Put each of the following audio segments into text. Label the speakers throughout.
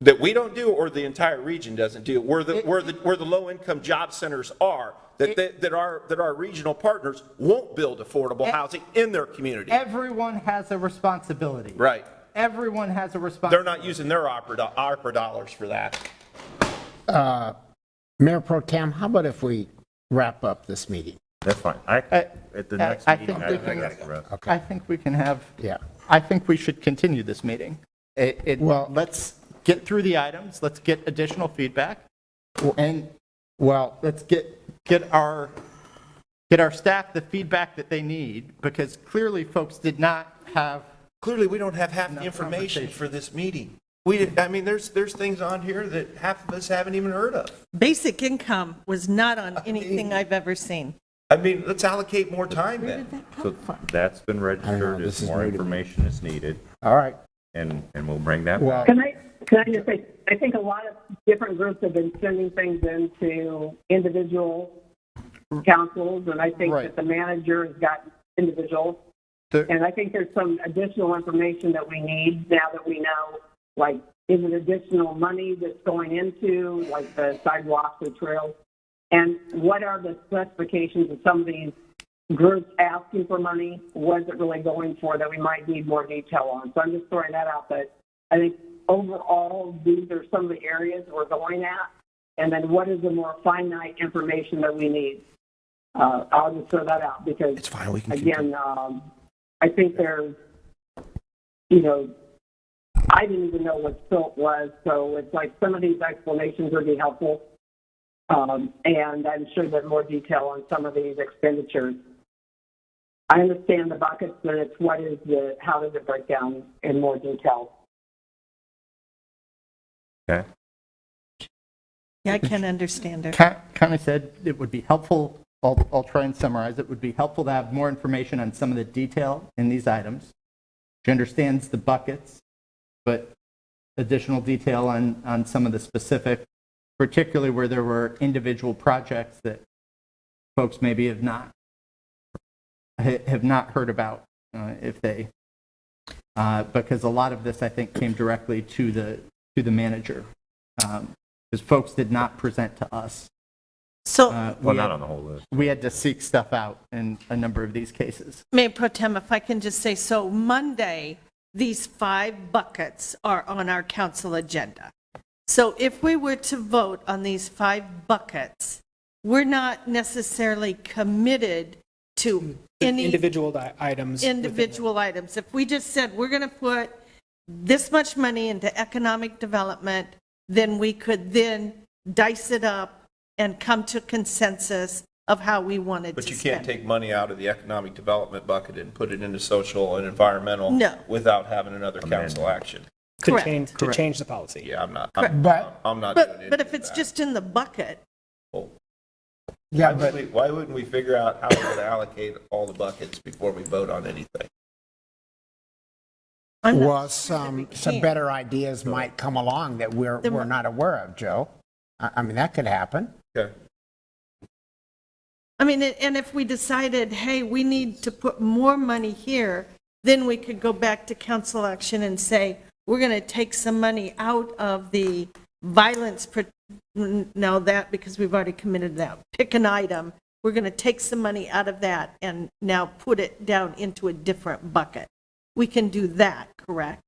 Speaker 1: that we don't do or the entire region doesn't do, where the, where the, where the low-income job centers are, that, that that our, that our regional partners won't build affordable housing in their community.
Speaker 2: Everyone has a responsibility.
Speaker 1: Right.
Speaker 2: Everyone has a
Speaker 1: They're
Speaker 2: responsibility.
Speaker 1: not using their opera, do- opera dollars for that.
Speaker 3: Mayor Pro Tem, how about if we wrap up this meeting?
Speaker 4: That's fine. I,
Speaker 2: I-
Speaker 4: at the
Speaker 2: I-
Speaker 4: next
Speaker 2: Uh, I
Speaker 4: meeting,
Speaker 2: think
Speaker 4: I
Speaker 2: we
Speaker 4: can
Speaker 2: can-
Speaker 4: ask the rest.
Speaker 2: I think we can have.
Speaker 3: Yeah.
Speaker 2: I think we should continue this meeting. It, it,
Speaker 3: Well-
Speaker 2: let's get through the items, let's get additional feedback, and
Speaker 3: Well,
Speaker 2: let's get, get our, get our staff the feedback that they need, because clearly folks did not have,
Speaker 1: Clearly, we don't have half the information for this meeting. We, did- I mean, there's, there's things on here that half of us haven't even heard of.
Speaker 5: Basic income was not on anything I've ever seen.
Speaker 1: I mean, let's allocate more time then.
Speaker 4: So that's been registered.
Speaker 3: this
Speaker 4: If
Speaker 3: is
Speaker 4: more
Speaker 3: new to me.
Speaker 4: information is needed,
Speaker 3: all right,
Speaker 4: and, and we'll bring that
Speaker 3: well,
Speaker 4: back.
Speaker 6: Can I, can I just say, I think a lot of different groups have been sending things into individual councils, and I
Speaker 2: Mm-hmm.
Speaker 6: think
Speaker 2: Right.
Speaker 6: that the manager has gotten individuals.
Speaker 2: The-
Speaker 6: And I think there's some additional information that we need now that we know, like, is it additional money that's going into, like, the sidewalks or trails? And what are the specifications of some of these groups asking for money? What is it really going for that we might need more detail on? So I'm just throwing that out, but I think overall, these are some of the areas we're going at. And then what is the more finite information that we need? Uh, I'll just throw that out because. It's fine, we can Again, um, I think there's, you know, I didn't even know what silt was, so it's like some of these explanations would be helpful. Um, and I'm sure that more detail on some of these expenditures. I understand the buckets, but it's what is the, how does it break down in more detail?
Speaker 4: Okay.
Speaker 5: Yeah, I can understand it.
Speaker 2: kind of said it would be helpful, I'll, I'll try and summarize, it would be helpful to have more information on some of the detail in these items. She understands the buckets, but additional detail on, on some of the specific, particularly where there were individual projects that folks maybe have not, ha- have not heard about, uh, if they, uh, because a lot of this, I think, came directly to the, to the manager. Um, because folks did not present to us.
Speaker 5: So,
Speaker 2: Uh, we
Speaker 4: Well,
Speaker 2: had-
Speaker 4: not on the whole list.
Speaker 2: We had to seek stuff out in a number of these cases.
Speaker 5: Mayor Pro Tem, if I can just say, so Monday, these five buckets are on our council agenda. So if we were to vote on these five buckets, we're not necessarily committed to any.
Speaker 7: individual di- items. within the-
Speaker 5: individual items. If we just said, we're going to put this much money into economic development, then we could then dice it up and come to consensus of how we wanted to
Speaker 1: But you
Speaker 5: spend.
Speaker 1: can't take money out of the economic development bucket and put it into social and environmental
Speaker 5: No.
Speaker 1: without having another council action.
Speaker 7: To
Speaker 5: Correct.
Speaker 7: change, to change the policy.
Speaker 1: Yeah, I'm not, I'm,
Speaker 3: But-
Speaker 1: I'm not doing
Speaker 5: But,
Speaker 1: it.
Speaker 5: but if it's just in the bucket,
Speaker 3: yeah,
Speaker 1: Why would
Speaker 3: but,
Speaker 1: we- Why wouldn't we figure out how we're gonna allocate all the buckets before we vote on anything?
Speaker 5: I'm not
Speaker 3: well,
Speaker 5: sure that we
Speaker 3: some, some
Speaker 5: can.
Speaker 3: better ideas might come along that we're,
Speaker 5: There
Speaker 3: we're
Speaker 5: mi-
Speaker 3: not aware of, Joe. I, I mean, that could happen.
Speaker 1: Okay.
Speaker 5: I mean, and if we decided, hey, we need to put more money here, then we could go back to council action and say, we're going to take some money out of the violence, pro- no, that, because we've already committed that. Pick an item, we're going to take some money out of that and now put it down into a different bucket. We can do that, correct?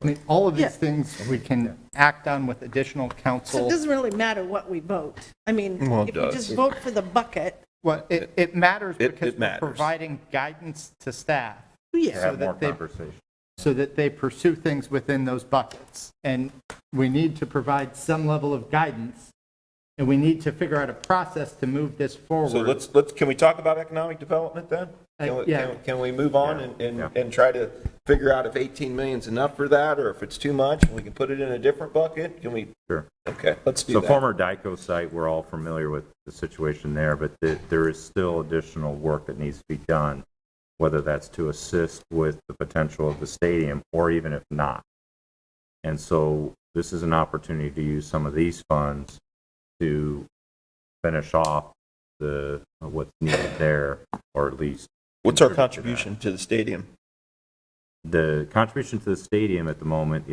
Speaker 2: I mean, all of
Speaker 5: Yeah.
Speaker 2: these things we can act on with additional
Speaker 5: So it
Speaker 2: counsel.
Speaker 5: doesn't really matter what we vote. I mean,
Speaker 1: Well, it
Speaker 5: if you
Speaker 1: does.
Speaker 5: just vote for the bucket,
Speaker 2: Well, it, it matters
Speaker 1: It-
Speaker 2: because
Speaker 1: it
Speaker 2: we're
Speaker 1: matters.
Speaker 2: providing guidance to staff
Speaker 4: To
Speaker 5: yeah,
Speaker 2: So
Speaker 4: have
Speaker 2: that
Speaker 4: more
Speaker 2: they-
Speaker 4: conversation.
Speaker 2: so that they pursue things within those buckets. And we need to provide some level of guidance, and we need to figure out a process to move this forward.
Speaker 1: So let's, let's, can we talk about economic development then?
Speaker 2: Uh,
Speaker 1: Can we-
Speaker 2: yeah.
Speaker 1: can- Can we move on
Speaker 4: Yeah,
Speaker 1: and, and,
Speaker 4: yeah.
Speaker 1: and try to figure out if 18 million's enough for that, or if it's too much, and we can put it in a different bucket? Can we,
Speaker 4: Sure.
Speaker 1: okay, let's do
Speaker 4: So
Speaker 1: that.
Speaker 4: former DICO site, we're all familiar with the situation there, but th- there is still additional work that needs to be done, whether that's to assist with the potential of the stadium or even if not. And so this is an opportunity to use some of these funds to finish off the, what's needed there, or at least
Speaker 1: What's our
Speaker 4: contribute to that.
Speaker 1: contribution to the stadium?
Speaker 4: The contribution to the stadium at the moment